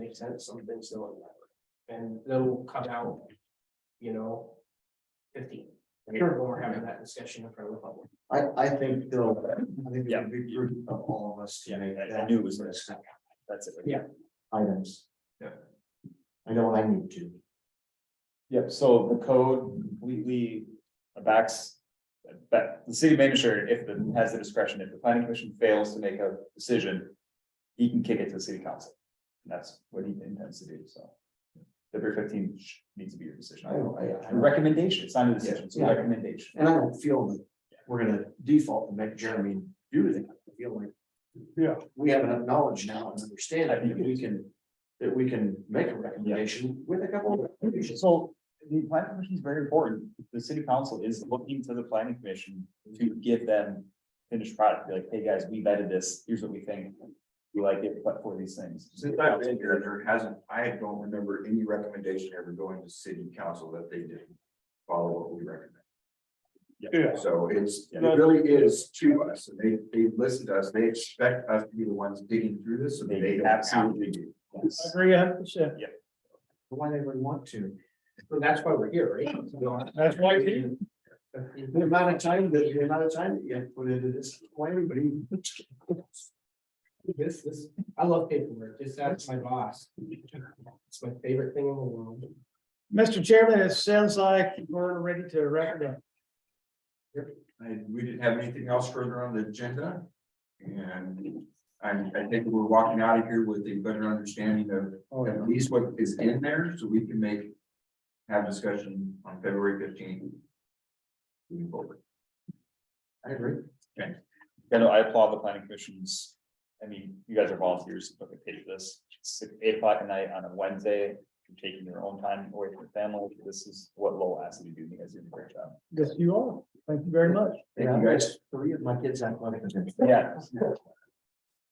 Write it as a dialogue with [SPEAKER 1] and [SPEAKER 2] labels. [SPEAKER 1] make sense, some things don't. And they'll cut out, you know, fifteen. I heard when we're having that discussion in front of the public.
[SPEAKER 2] I, I think they'll, I think
[SPEAKER 3] Yeah.
[SPEAKER 2] it'd be prudent of all of us to
[SPEAKER 3] Yeah,
[SPEAKER 2] make
[SPEAKER 3] I, I
[SPEAKER 2] that
[SPEAKER 3] knew it was gonna snap. That's it.
[SPEAKER 1] Yeah.
[SPEAKER 2] items.
[SPEAKER 1] Yeah.
[SPEAKER 2] I know I need to.
[SPEAKER 3] Yep, so the code completely backs. That the city manager, if the, has the discretion, if the planning commission fails to make a decision. He can kick it to the city council. And that's what he intends to do, so. February fifteenth sh- needs to be your decision.
[SPEAKER 2] I don't, I, I
[SPEAKER 3] A recommendation, it's not a decision, it's a
[SPEAKER 2] Yeah.
[SPEAKER 3] recommendation.
[SPEAKER 2] And I don't feel that we're gonna default and make Jeremy do that. I feel like.
[SPEAKER 3] Yeah.
[SPEAKER 2] We have enough knowledge now and understanding
[SPEAKER 3] I think
[SPEAKER 2] that we can, that we can make a recommendation with a couple of recommendations.
[SPEAKER 3] So the planning commission is very important. The city council is looking to the planning commission to give them finished product, be like, hey, guys, we vetted this, here's what we think. We like it, but for these things.
[SPEAKER 4] Since I've been here, there hasn't, I don't remember any recommendation ever going to city council that they didn't follow what we recommend.
[SPEAKER 5] Yeah.
[SPEAKER 4] So it's, it really is to us, and they, they listen to us, they expect us to be the ones digging through this, so
[SPEAKER 3] They
[SPEAKER 4] they don't have to
[SPEAKER 3] absolutely
[SPEAKER 4] do.
[SPEAKER 3] Yes.
[SPEAKER 5] Agree a hundred percent.
[SPEAKER 2] Why they would want to.
[SPEAKER 1] So that's why we're here, right? To be honest.
[SPEAKER 5] That's why it's here.
[SPEAKER 2] The amount of time that, the amount of time that you have to put into this, why everybody?
[SPEAKER 1] This, this, I love paperwork, just ask my boss. It's my favorite thing in the world.
[SPEAKER 5] Mr. Chairman, it sounds like we're ready to wrap it up.
[SPEAKER 4] And we didn't have anything else further on the agenda. And I'm, I think we're walking out of here with a better understanding of at least what is in there, so we can make, have discussion on February fifteenth. Moving forward.
[SPEAKER 2] I agree.
[SPEAKER 3] I know, I applaud the planning commissions. I mean, you guys are volunteers, but they paid for this, It's like eight o'clock at night on a Wednesday, you're taking your own time away from your family. This is what Lowell asked you to do, and you guys did a great job.
[SPEAKER 5] Yes, you are. Thank you very much.
[SPEAKER 2] Yeah, guys, three of my kids athletic events.
[SPEAKER 3] Yeah.